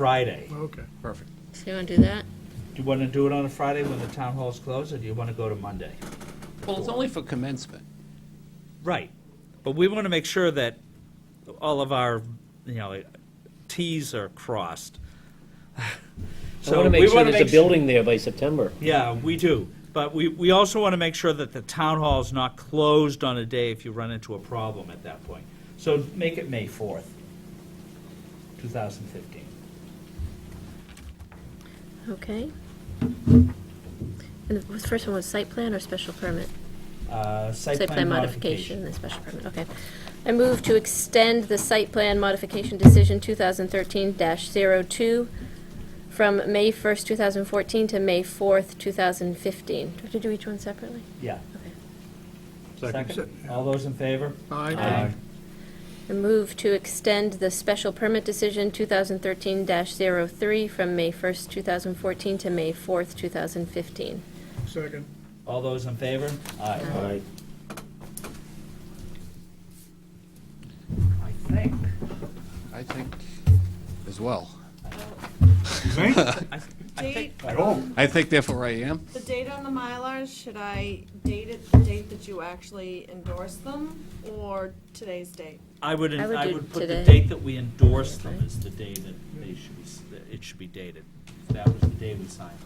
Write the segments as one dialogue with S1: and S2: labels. S1: Friday.
S2: Okay.
S3: Perfect.
S4: So you want to do that?
S1: Do you want to do it on a Friday when the town hall's closed, or do you want to go to Monday?
S3: Well, it's only for commencement.
S1: Right, but we want to make sure that all of our, you know, Ts are crossed.
S5: I want to make sure there's a building there by September.
S1: Yeah, we do, but we, we also want to make sure that the town hall is not closed on a day if you run into a problem at that point. So make it May fourth, two thousand fifteen.
S4: Okay. And the first one was site plan or special permit?
S1: Uh,
S4: Site plan modification, and special permit, okay. I move to extend the site plan modification decision 2013-02 from May 1st, 2014 to May 4th, 2015. Do we have to do each one separately?
S1: Yeah.
S4: Okay.
S2: Second.
S1: All those in favor?
S2: Aye.
S4: I move to extend the special permit decision 2013-03 from May 1st, 2014 to May 4th, 2015.
S2: Second.
S1: All those in favor? Aye.
S5: Aye.
S1: I think,
S3: I think as well.
S1: I I
S6: Date,
S1: think,
S3: I think therefore I am.
S6: the date on the Mylars, should I date it, the date that you actually endorse them, or today's date?
S1: I would,
S4: I would
S1: I
S4: do
S1: would put the
S4: today.
S1: date that we endorse them
S4: Okay.
S1: as the day that they should be, s- that it should be dated. That was the day we signed.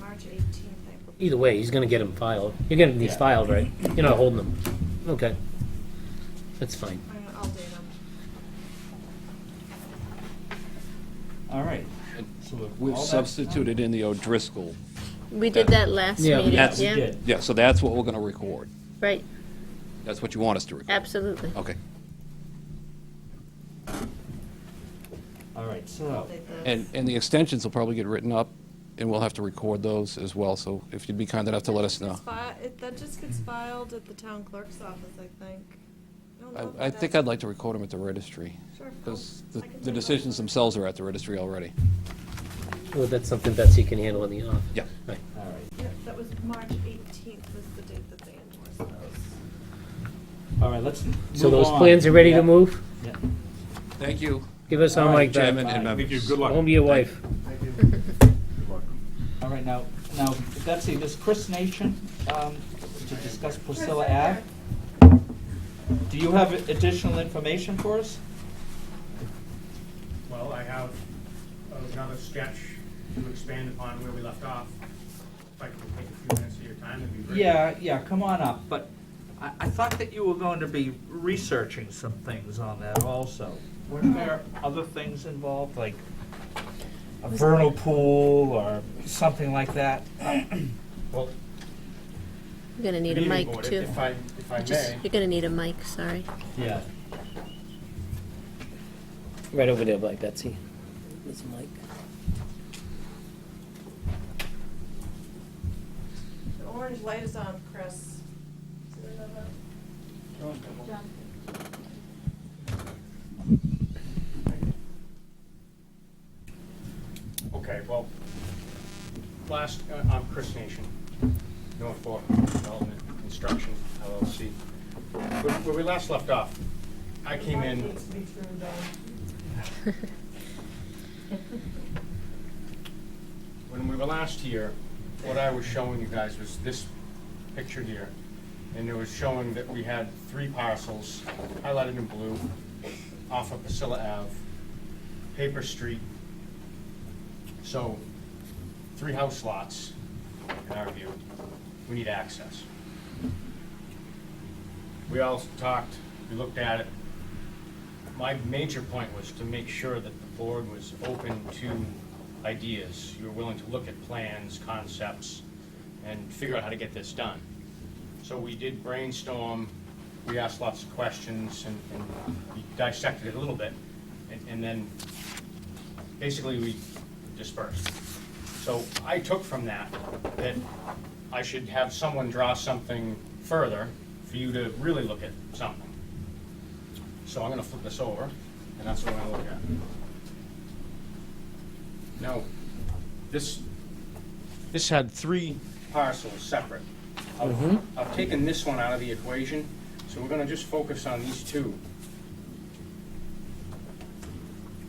S6: March 18th, I believe.
S5: Either way, he's gonna get them filed. You're getting these
S1: Yeah.
S5: filed, right? You're not holding them. Okay. That's fine.
S6: I- I'll date them.
S1: All right.
S3: And
S1: So if
S3: We've
S1: all that's
S3: substituted in the O'Driscoll.
S4: We did that last
S5: Yeah,
S4: meeting,
S1: done,
S3: Yes.
S1: We
S4: yeah?
S1: did.
S3: Yeah, so that's what we're going to record.
S4: Right,
S3: That's what you want us to record.
S4: absolutely.
S3: Okay.
S1: All right, so,
S6: I'll date the-
S3: And, and the extensions will probably get written up, and we'll have to record those as well, so if you'd be kind enough to let us know.
S6: It's fi- it- That just gets filed at the town clerk's office, I think. don't know if
S3: I, I
S6: it
S3: think
S6: does.
S3: I'd like to record them at the registry,
S6: Sure.
S3: because
S6: I
S3: the,
S6: can
S3: the
S6: take
S3: decisions
S6: over.
S3: themselves are at the registry already.
S5: Well, that's something Betsy can handle in the office.
S3: Yeah.
S5: Right.
S1: all right.
S6: Yep, that was March 18th was the date that they endorsed those.
S1: All right, let's move
S5: So those
S1: on.
S5: plans are ready to
S1: Yeah,
S5: move?
S1: yeah.
S3: Thank you,
S5: Give us our
S1: All right,
S5: mic back.
S3: Chairman and
S1: Bye.
S3: members.
S5: Home to your wife.
S1: All right, now, now, Betsy, this Chris Nation, um, to discuss Priscilla Ave. Do you have additional information for us?
S7: Well, I have another sketch to expand upon where we left off. If I can take a few minutes of your time, that'd be great.
S1: Yeah, yeah, come on up, but I, I thought that you were going to be researching some things on that also. Weren't there other things involved, like a vernal pool or something like that?
S7: Well,
S4: You're gonna need a
S7: meeting
S4: mic
S7: board,
S4: too.
S7: If I, if I
S4: Just-
S7: may,
S4: You're gonna need a mic, sorry.
S1: Yeah.
S5: Right over there by Betsy. There's a mic.
S6: The orange light is on, Chris. Do you know that?
S7: okay, well, last, uh, I'm Chris Nation, North Fork Development Construction LLC. Where where we last left off, I came in.
S6: Needs to be trimmed down.
S7: when we were last here, what I was showing you guys was this picture here. And it was showing that we had three parcels, highlighted in blue, off of Priscilla Ave, Paper Street. So, three house lots, in our view. We need access. We all talked, we looked at it. My major point was to make sure that the board was open to ideas. You were willing to look at plans, concepts, and figure out how to get this done. So we did brainstorm, we asked lots of questions, and and we dissected it a little bit, and- and then basically we dispersed. So I took from that that I should have someone draw something further for you to really look at something. So I'm gonna flip this over, and that's what I'm gonna look at. Now, this, this had three parcels separate. I've- I've taken this one out of the equation, so we're gonna just focus on these two.